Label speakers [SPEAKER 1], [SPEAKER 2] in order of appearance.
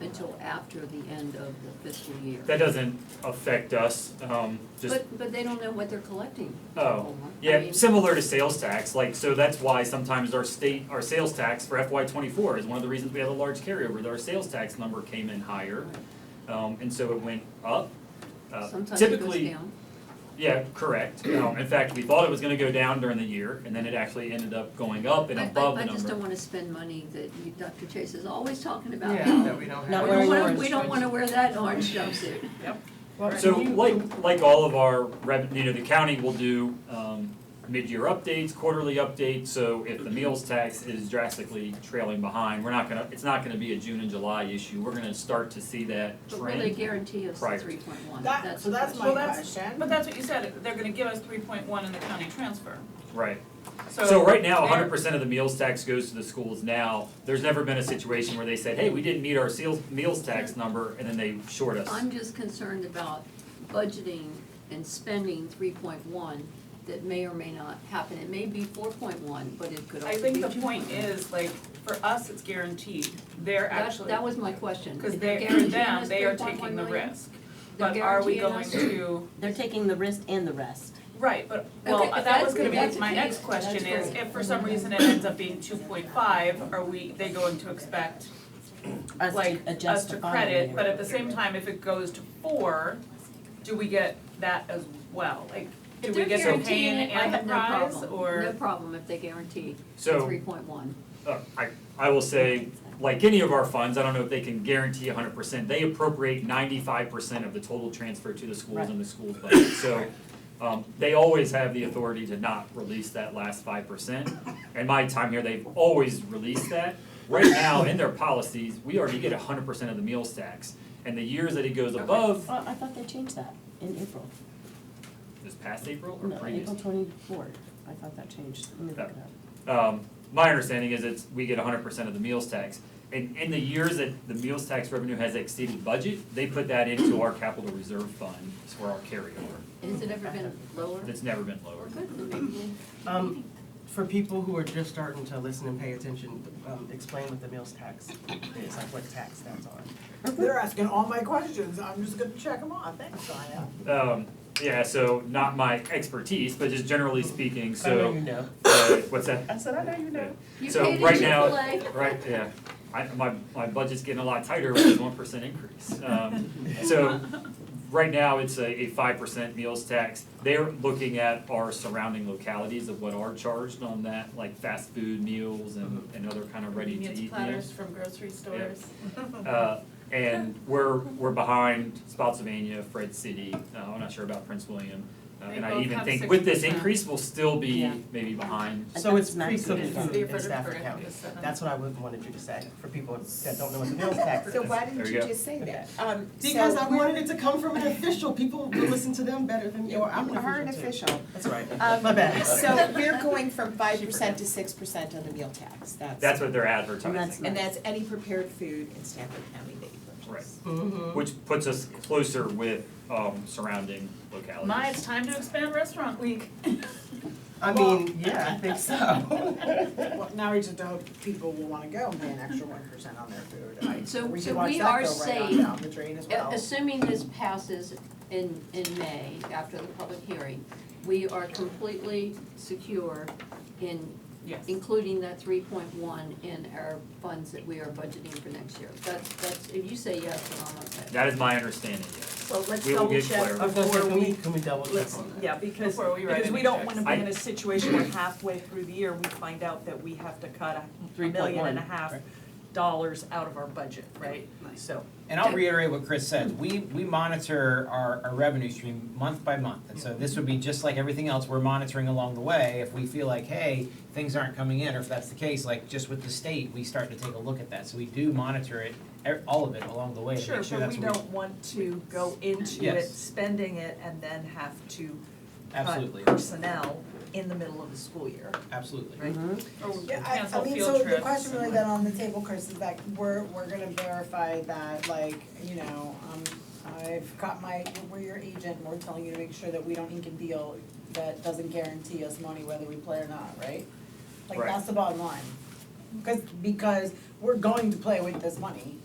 [SPEAKER 1] until after the end of the fiscal year.
[SPEAKER 2] That doesn't affect us, um, just,
[SPEAKER 1] But, but they don't know what they're collecting.
[SPEAKER 2] oh.
[SPEAKER 1] Omar. I
[SPEAKER 2] Yeah,
[SPEAKER 1] mean,
[SPEAKER 2] similar to sales tax, like, so that's why sometimes our state, our sales tax for FY twenty-four is one of the reasons we had a large carryover, that our sales tax number came in higher. Um, and so it went up. Uh,
[SPEAKER 1] Sometimes it goes
[SPEAKER 2] Typically,
[SPEAKER 1] down.
[SPEAKER 2] yeah, correct. Um, in fact, we thought it was gonna go down during the year, and then it actually ended up going up and
[SPEAKER 1] I- I-
[SPEAKER 2] above the
[SPEAKER 1] I just don't
[SPEAKER 2] number.
[SPEAKER 1] wanna spend money that you, Dr. Chase is always talking about.
[SPEAKER 3] Yeah, that we don't have.
[SPEAKER 4] Not
[SPEAKER 1] We
[SPEAKER 4] wearing
[SPEAKER 1] don't wanna,
[SPEAKER 4] orange
[SPEAKER 1] we don't wanna wear that orange jumpsuit.
[SPEAKER 3] Well,
[SPEAKER 2] So
[SPEAKER 3] you-
[SPEAKER 2] like, like all of our rev, you know, the county will do, um, mid-year updates, quarterly updates, so if the meals tax is drastically trailing behind, we're not gonna, it's not gonna be a June and July issue, we're gonna start to see that
[SPEAKER 1] But will they
[SPEAKER 2] trend.
[SPEAKER 1] guarantee us the
[SPEAKER 2] Prior.
[SPEAKER 1] three point one?
[SPEAKER 5] That, so that's my
[SPEAKER 4] Well, that's-
[SPEAKER 5] question.
[SPEAKER 4] But that's what you said, they're gonna give us three point one in the county transfer,
[SPEAKER 2] Right,
[SPEAKER 4] so.
[SPEAKER 2] so right now,
[SPEAKER 4] they're-
[SPEAKER 2] hundred percent of the meals tax goes to the schools now, there's never been a situation where they said, hey, we didn't meet our seals, meals tax number, and then they short us.
[SPEAKER 1] I'm just concerned about budgeting and spending three point one that may or may not happen. It may be four point one, but it could
[SPEAKER 4] I
[SPEAKER 1] also be
[SPEAKER 4] think
[SPEAKER 1] two
[SPEAKER 4] the
[SPEAKER 1] point one.
[SPEAKER 4] point is, like, for us, it's guaranteed, they're
[SPEAKER 1] That,
[SPEAKER 4] actually,
[SPEAKER 1] that was my question.
[SPEAKER 4] cause
[SPEAKER 1] They're
[SPEAKER 4] they, for
[SPEAKER 1] guaranteeing
[SPEAKER 4] them,
[SPEAKER 1] us
[SPEAKER 4] they are
[SPEAKER 1] 3.1
[SPEAKER 4] taking the
[SPEAKER 1] million?
[SPEAKER 4] risk.
[SPEAKER 1] They're
[SPEAKER 4] But are we
[SPEAKER 1] guaranteeing
[SPEAKER 4] going
[SPEAKER 1] us-
[SPEAKER 4] to,
[SPEAKER 6] They're taking the wrist and the rest.
[SPEAKER 4] right, but,
[SPEAKER 1] Okay, but
[SPEAKER 4] well, that was
[SPEAKER 1] that's-
[SPEAKER 4] gonna be
[SPEAKER 1] that's-
[SPEAKER 4] my next question is, if for some reason it ends up being two point five, are we, they going to expect
[SPEAKER 6] Us
[SPEAKER 4] like
[SPEAKER 6] to
[SPEAKER 4] us
[SPEAKER 6] adjust the
[SPEAKER 4] to
[SPEAKER 6] following
[SPEAKER 4] credit,
[SPEAKER 6] year.
[SPEAKER 4] but at the same time, if it goes to four, do we get that as well? Like, do
[SPEAKER 7] If
[SPEAKER 4] we
[SPEAKER 7] they're
[SPEAKER 4] get the pain
[SPEAKER 7] guaranteeing it, I
[SPEAKER 4] and
[SPEAKER 1] have
[SPEAKER 4] the
[SPEAKER 1] no
[SPEAKER 4] prize,
[SPEAKER 1] problem. No
[SPEAKER 4] or?
[SPEAKER 1] problem if they guarantee
[SPEAKER 2] So-
[SPEAKER 1] three point one.
[SPEAKER 2] Uh, I, I will say, like any of our funds, I don't know if they can guarantee hundred percent, they appropriate ninety-five percent of the total transfer to the schools and the school's budget, so um, they always have the authority to not release that last five percent. In my time here, they've always released that. Right now, in their policies, we already get hundred percent of the meals tax, and the years that it goes above,
[SPEAKER 6] Oh, I thought they changed that in April.
[SPEAKER 2] this past April or
[SPEAKER 6] No,
[SPEAKER 2] previous?
[SPEAKER 6] April twenty-four. I thought that changed. Let me look it up.
[SPEAKER 2] Um, my understanding is it's, we get hundred percent of the meals tax. And in the years that the meals tax revenue has exceeded budget, they put that into our capital reserve fund, it's for our carryover.
[SPEAKER 1] Has it ever been lower?
[SPEAKER 2] It's never been
[SPEAKER 1] Or
[SPEAKER 2] lower.
[SPEAKER 1] good, then maybe we'll-
[SPEAKER 3] Um, for people who are just starting to listen and pay attention, um, explain what the meals tax is, like what tax that's on.
[SPEAKER 5] They're asking all my questions, I'm just gonna check them off, thanks, Sonia.
[SPEAKER 2] Um, yeah, so not my expertise, but just generally speaking,
[SPEAKER 3] I know
[SPEAKER 2] so,
[SPEAKER 3] you know.
[SPEAKER 2] uh, what's that?
[SPEAKER 3] I said, I know you know.
[SPEAKER 1] You
[SPEAKER 2] So
[SPEAKER 1] paid a
[SPEAKER 2] right now-
[SPEAKER 1] Chick-fil-A.
[SPEAKER 2] Right, yeah. I, my, my budget's getting a lot tighter with this one percent increase. Um, so, right now, it's a, a five percent meals tax. They're looking at our surrounding localities of what are charged on that, like fast food meals and,
[SPEAKER 8] Mm-hmm.
[SPEAKER 2] and other kind of ready-to-eat meals.
[SPEAKER 4] platters from grocery stores.
[SPEAKER 2] Uh, and we're, we're behind Spotsylvania, Fred City, uh, I'm not sure about Prince William. Uh,
[SPEAKER 4] They
[SPEAKER 2] and I
[SPEAKER 4] both
[SPEAKER 2] even
[SPEAKER 4] have
[SPEAKER 2] think with this
[SPEAKER 4] 6%.
[SPEAKER 2] increase, we'll still
[SPEAKER 6] Yeah.
[SPEAKER 2] be maybe behind
[SPEAKER 6] I
[SPEAKER 3] So
[SPEAKER 6] thought
[SPEAKER 3] it's
[SPEAKER 6] it was
[SPEAKER 3] pre-cooked
[SPEAKER 6] Madison.
[SPEAKER 3] food in
[SPEAKER 4] It's
[SPEAKER 3] Stafford
[SPEAKER 4] Stafford
[SPEAKER 3] County.
[SPEAKER 4] County, it's seven.
[SPEAKER 3] That's what I would- wanted you to say, for people that don't know what the meals tax is.
[SPEAKER 8] So why
[SPEAKER 2] There
[SPEAKER 8] didn't
[SPEAKER 2] we
[SPEAKER 8] you
[SPEAKER 2] go.
[SPEAKER 8] just say that? Um, so
[SPEAKER 3] Because I
[SPEAKER 8] we're-
[SPEAKER 3] wanted it to come from an official, people will listen to them better than, or I'm an
[SPEAKER 8] You are an
[SPEAKER 3] official too.
[SPEAKER 8] official.
[SPEAKER 3] That's right,
[SPEAKER 8] Um,
[SPEAKER 3] my bad.
[SPEAKER 8] So we're going from five percent to six percent on the meal tax, that's.
[SPEAKER 2] That's what they're advertising,
[SPEAKER 8] And that's any prepared food in Stafford County that you
[SPEAKER 2] Right.
[SPEAKER 8] purchase.
[SPEAKER 5] Mm-hmm.
[SPEAKER 3] Mhm.
[SPEAKER 2] which puts us closer with, um, surrounding localities.
[SPEAKER 4] My, it's time to expand restaurant week.
[SPEAKER 3] I mean, yeah, I think so.
[SPEAKER 5] Well, now we just hope people will wanna go and pay an extra one percent on their food, I,
[SPEAKER 1] So-
[SPEAKER 5] we
[SPEAKER 1] so
[SPEAKER 5] should watch
[SPEAKER 1] we
[SPEAKER 5] that
[SPEAKER 1] are Uh,
[SPEAKER 5] go right on
[SPEAKER 1] saying-
[SPEAKER 5] down the drain as well.
[SPEAKER 1] A- Assuming this passes in, in May, after the public hearing, we are completely secure in
[SPEAKER 4] Yes.
[SPEAKER 1] including that three point one in our funds that we are budgeting for next year. That's, that's, if you say yes, then I'm okay.
[SPEAKER 2] That is my understanding, yes.
[SPEAKER 5] So let's
[SPEAKER 2] We will
[SPEAKER 5] double
[SPEAKER 2] get
[SPEAKER 5] check
[SPEAKER 2] clarity.
[SPEAKER 3] Okay,
[SPEAKER 5] before
[SPEAKER 3] can we,
[SPEAKER 5] we,
[SPEAKER 3] can we double check
[SPEAKER 7] Let's,
[SPEAKER 3] on that?
[SPEAKER 7] yeah, because,
[SPEAKER 4] Before we write
[SPEAKER 7] because we
[SPEAKER 4] any
[SPEAKER 7] don't
[SPEAKER 4] checks.
[SPEAKER 7] wanna be
[SPEAKER 2] I-
[SPEAKER 7] in a situation where halfway through the year, we find out that we have to cut a million and a
[SPEAKER 6] 3.1,
[SPEAKER 7] half
[SPEAKER 6] right.
[SPEAKER 7] dollars out of our budget, right? So,
[SPEAKER 9] And I'll reiterate what Chris said, we, we monitor our, our revenue stream month by month. And so this would be just like everything else, we're monitoring along the way. If we feel like, hey, things aren't coming in, or if that's the case, like just with the state, we start to take a look at that. So we do monitor it, e- all of it along the way to
[SPEAKER 7] sure,
[SPEAKER 9] make sure
[SPEAKER 7] but
[SPEAKER 9] that's
[SPEAKER 7] we
[SPEAKER 9] what
[SPEAKER 7] don't want to go into it,
[SPEAKER 9] Yes.
[SPEAKER 7] spending it, and then have to
[SPEAKER 9] Absolutely.
[SPEAKER 7] cut personnel in the middle of the school year.
[SPEAKER 9] Absolutely.
[SPEAKER 7] Right.
[SPEAKER 4] Or
[SPEAKER 5] yeah, I,
[SPEAKER 4] Oh, cancel
[SPEAKER 5] I mean,
[SPEAKER 4] field
[SPEAKER 5] so the
[SPEAKER 4] trips
[SPEAKER 5] question really
[SPEAKER 4] and-
[SPEAKER 5] then on the table, Chris, is that we're, we're gonna verify that, like, you know, um, I've got my, we're your agent, and we're telling you to make sure that we don't ink a deal that doesn't guarantee us money whether we play or not, right? Like,
[SPEAKER 2] Right.
[SPEAKER 5] that's the bottom line, cause, because we're going to play with this money,